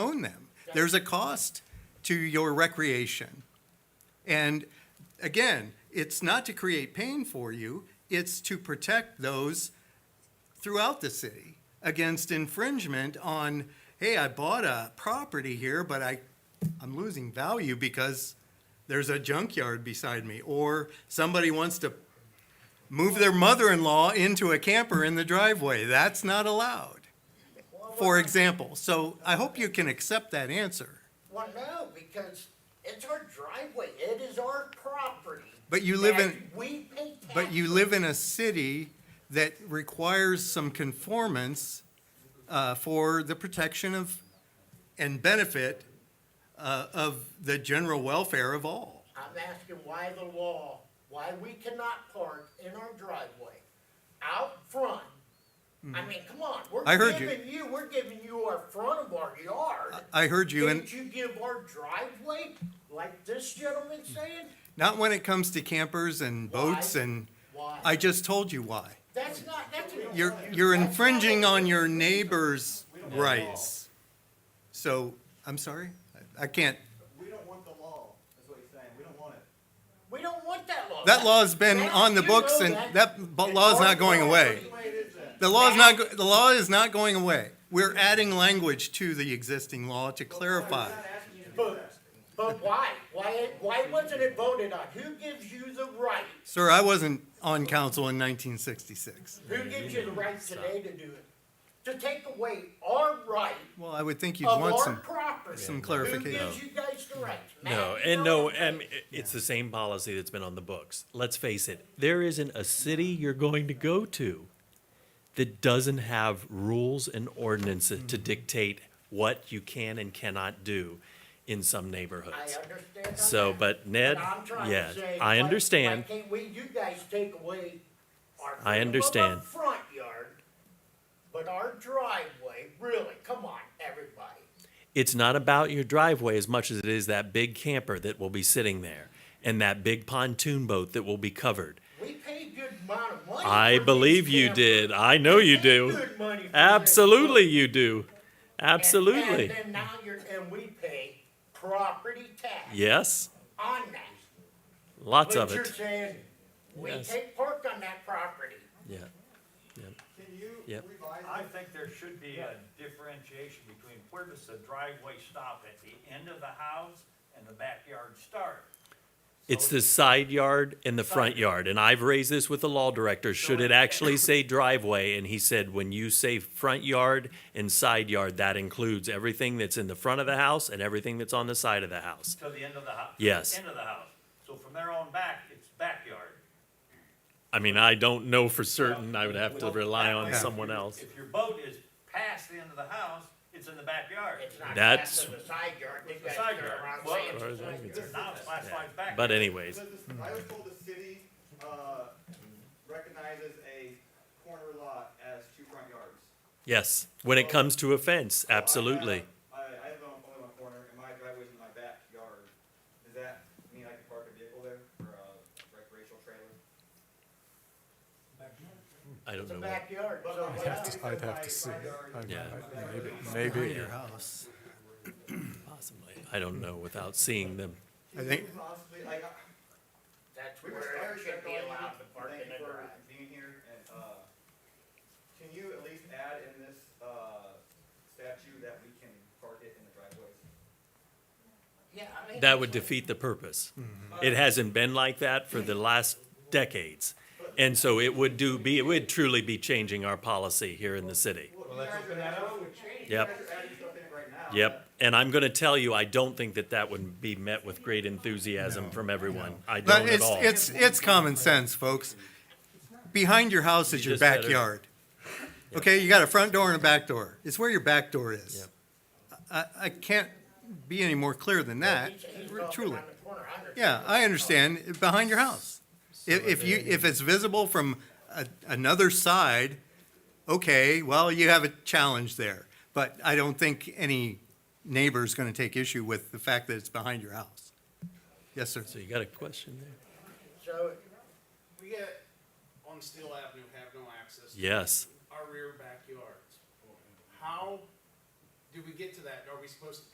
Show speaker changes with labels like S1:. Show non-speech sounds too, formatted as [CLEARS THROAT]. S1: own them. There's a cost to your recreation. And again, it's not to create pain for you, it's to protect those throughout the city against infringement on, hey, I bought a property here, but I, I'm losing value because there's a junkyard beside me, or somebody wants to move their mother-in-law into a camper in the driveway. That's not allowed, for example. So I hope you can accept that answer.
S2: Well, no, because it's our driveway, it is our property.
S1: But you live
S2: that
S1: in-
S2: We pay tax.
S1: But you live in a city that requires some conformance uh, for the protection of and benefit uh, of the general welfare of all.
S2: I'm asking why the law, why we cannot park in our driveway, out front. I mean, come on, we're
S1: Hmm. I heard you.
S2: giving you, we're giving you our front of our yard.
S1: I heard you, and
S2: Didn't you give our driveway, like this gentleman's
S1: Hmm.
S2: saying?
S1: not when it comes to campers and boats, and I
S2: Why?
S1: just told you why.
S2: That's not, that's. an-
S1: You're, you're
S2: that's not
S1: infringing
S2: a-
S1: on your neighbor's rights. So, I'm sorry, I- I can't,
S3: We don't want the law, is what he's saying, we don't want it.
S2: We don't want that law.
S1: that law's been
S2: That-
S1: on the
S2: you
S1: books,
S2: know
S1: and
S2: that.
S1: that bu- law's not going away.
S3: Which way it is then?
S1: The law is not, go- the law is not going away. We're adding language to the existing law to clarify.
S3: We're not asking you to do
S2: But, but why? Why, why wasn't it voted on? Who gives you the right?
S1: Sir, I wasn't on council in nineteen sixty-six.
S2: Who gives you the right today to do it? To take away our right
S1: Well, I would think you'd
S2: of
S1: want
S2: our
S1: some,
S2: property?
S1: some
S2: Who
S1: clarification.
S2: gives you guys the right?
S4: No,
S2: Matt,
S4: and
S2: you
S4: no,
S2: know
S4: I mean, it- it's the same policy that's been on the books. Let's face it, there isn't a city you're going to go to that doesn't have rules and ordinances
S2: Mm-hmm.
S4: to dictate what you can and cannot do in some
S2: I
S4: neighborhoods.
S2: understand on
S4: So,
S2: that,
S4: but Ned,
S2: I'm trying to
S4: yeah,
S2: say, why-
S4: I understand.
S2: Why can't we, you guys take away our
S4: I
S2: freedom of our
S4: understand.
S2: front yard, but our driveway, really, come on, everybody.
S4: It's not about your driveway as much as it is that big camper that will be sitting there and that big pontoon boat that will be covered.
S2: We paid good amount of money.
S4: I
S2: for these
S4: believe you
S2: cameras.
S4: did. I know you
S2: Paid
S4: do.
S2: good money for this.
S4: Absolutely, you do.
S2: And-
S4: Absolutely.
S2: And then now you're, and we pay property tax
S4: Yes,
S2: on that.
S4: lots of
S2: But you're
S4: it.
S2: saying, we
S4: Yes.
S2: take park on that property.
S4: Yeah.
S3: that. Can you
S4: Yep.
S3: revise?
S5: I think there should be a differentiation between where does the driveway stop at the end of the house and the backyard start?
S4: It's the side yard and the front yard. And I've raised this with the law director. Should it actually say driveway? And he said, when you say front yard and side yard, that includes everything that's in the front of the house and everything that's on the side of the house.
S5: To the end of the house?
S4: Yes.
S5: End of the house. So from there on back, it's backyard.
S4: I mean, I don't know for certain. I would have to
S5: Well,
S4: rely
S5: that
S4: on
S5: way,
S4: someone else.
S5: If your boat is past the end of the house, it's in the backyard.
S2: It's not
S4: That's-
S2: past the side yard. They
S5: It's the
S2: gotta
S5: side
S2: turn
S5: yard.
S2: around and
S5: Well,
S2: say it's
S4: Or
S2: the
S4: they
S2: side
S4: could
S2: yard.
S5: Now it's classified backyard.
S4: But anyways,
S3: Does this- I was told the city, uh, recognizes a corner lot as two front yards.
S4: yes, when it comes to a fence,
S3: So I have-
S4: absolutely.
S3: I, I have only one corner, and my driveway's in my backyard, does that mean I can park a vehicle there, or a recreational trailer?
S4: I don't
S2: It's a
S4: know. what-
S2: backyard. So
S3: I'd
S2: what
S3: have to,
S6: I'd have to see.
S4: Yeah.
S6: Maybe.
S1: Your house. [CLEARS THROAT]
S4: Possibly. I don't know without seeing them.
S1: I think-
S3: Possibly, like, I-
S2: That's
S3: We
S2: where
S3: were
S2: it
S3: started
S2: should
S3: to
S2: be allowed to park
S3: thank
S2: in
S3: you
S2: the
S3: for
S2: drive.
S3: being here, and, uh, can you at least add in this, uh, statute that we can park it in the driveways?
S2: Yeah, I mean.
S4: That would defeat the purpose.
S1: Mm-hmm.
S4: It hasn't been like that for the last decades. And so it would do, be, it would truly be changing our policy here in the city.
S3: Well, you guys are adding,
S4: Yep.
S3: you guys are adding stuff in it right now.
S4: Yep. And I'm going to tell you, I don't think that that would be met with great enthusiasm from everyone. I
S1: But
S4: don't at
S1: it's,
S4: all.
S1: it's, it's common sense, folks. Behind your house is
S4: You
S1: your
S4: just better-
S1: backyard. Okay, you got a front door and a back door. It's where your back door is. I, I can't be any more clear than that,
S2: He's- he's walking
S1: truly.
S2: around the corner. I understand.
S1: Yeah, I understand, behind your house. If, if you, if it's visible from a, another side, okay, well, you have a challenge there. But I don't think any neighbor's gonna take issue with the fact that it's behind your house. Yes, sir.
S4: So you got a question there?
S2: So
S7: We get on Steel Avenue, have no access. to
S4: Yes.
S7: Our rear backyards. How do we get to that? Are we supposed to